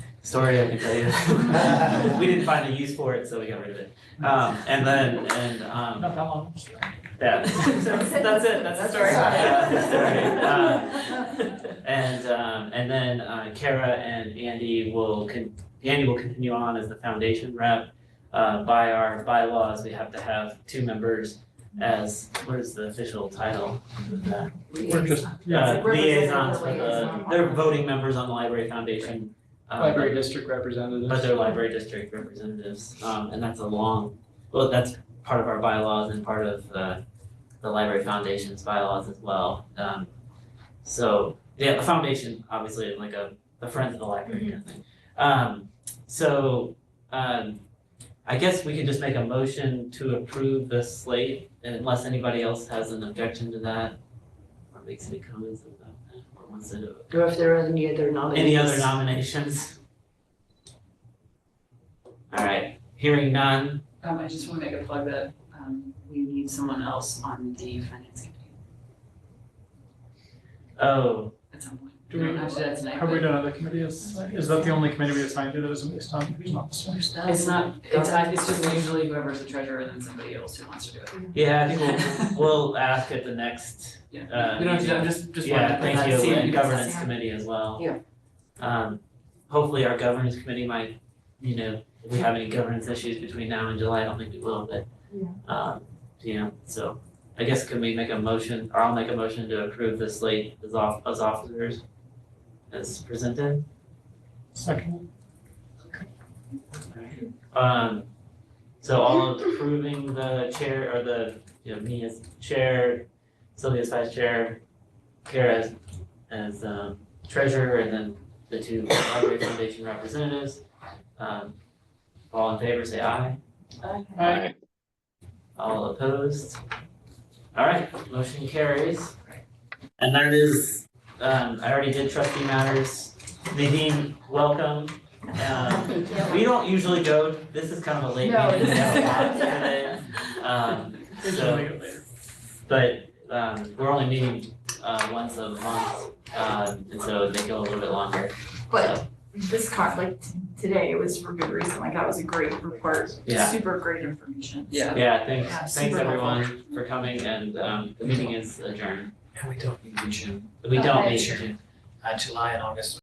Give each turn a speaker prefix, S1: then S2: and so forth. S1: Sorry, I can tell you. We didn't find a use for it, so we got rid of it. Um, and then, and, um,
S2: Not that long.
S1: yeah, that's it, that's the story. Yeah, that's the story. Um, And um and then uh Kara and Andy will con- Andy will continue on as the foundation rep. Uh by our bylaws, we have to have two members as, what is the official title? of that?
S2: We're just, yeah,
S1: Uh, liaisons for the, they're voting members on the library foundation. uh,
S2: library district representatives.
S1: But they're library district representatives, um and that's a long, well, that's part of our bylaws and part of the the library foundation's bylaws as well, um so, yeah, the foundation obviously is like a the friends of the library kind of thing. Um so um I guess we could just make a motion to approve this slate unless anybody else has an objection to that or makes any comments about that or wants to do
S3: Or if there are any other nominees.
S1: any other nominations? All right, hearing none,
S4: Um, I just wanna make a plug that, um, we need someone else on the finance committee
S1: oh,
S4: at some point.
S2: Do we-
S4: Not to that tonight,
S2: Have we
S4: but
S2: done other committees? Is that the only committee we assigned to that isn't based on who's not this one?
S4: it's not, it's, I- it's just usually whoever's the treasurer and then somebody else who wants to do it.
S1: yeah, I think we'll, we'll ask at the next,
S4: Yeah.
S1: uh,
S4: We don't, have to- I'm just, just wanted to
S1: yeah,
S4: put that
S1: thank you,
S4: scene
S1: and
S4: because-
S1: governance committee as well.
S3: Yeah.
S1: Um, hopefully our governance committee might, you know, if we have any governance issues between now and July, I don't think we will, but
S3: Yeah.
S1: um, you know, so I guess can we make a motion, or I'll make a motion to approve the slate as off, as officers as presented?
S2: Second,
S1: Um, so all of approving the chair or the, you know, me as chair, Sylvia as vice chair, Kara as, as um treasurer, and then the two library foundation representatives. Um, all in favor, say aye.
S5: Aye.
S1: All opposed? All right, motion carries. And that is, um, I already did trustee matters. Nadine, welcome. Um, we don't usually go, this is kind of a late
S4: No,
S1: meeting, we
S4: this
S1: have a
S4: is-
S1: lot today. Um,
S2: we can
S1: so,
S2: make it later.
S1: but, um, we're only meeting, uh, once a month, um, and so they go a little bit longer.
S6: But this con, like t- today, it was for good reason, like that was a great report,
S1: Yeah.
S6: super great information.
S4: Yeah.
S1: Yeah, thanks,
S6: Yeah,
S1: thanks
S6: super
S1: everyone for coming and, um, the meeting is adjourned.
S7: And we don't meet in June,
S1: We don't
S6: Okay.
S1: meet in June.
S7: uh, July and August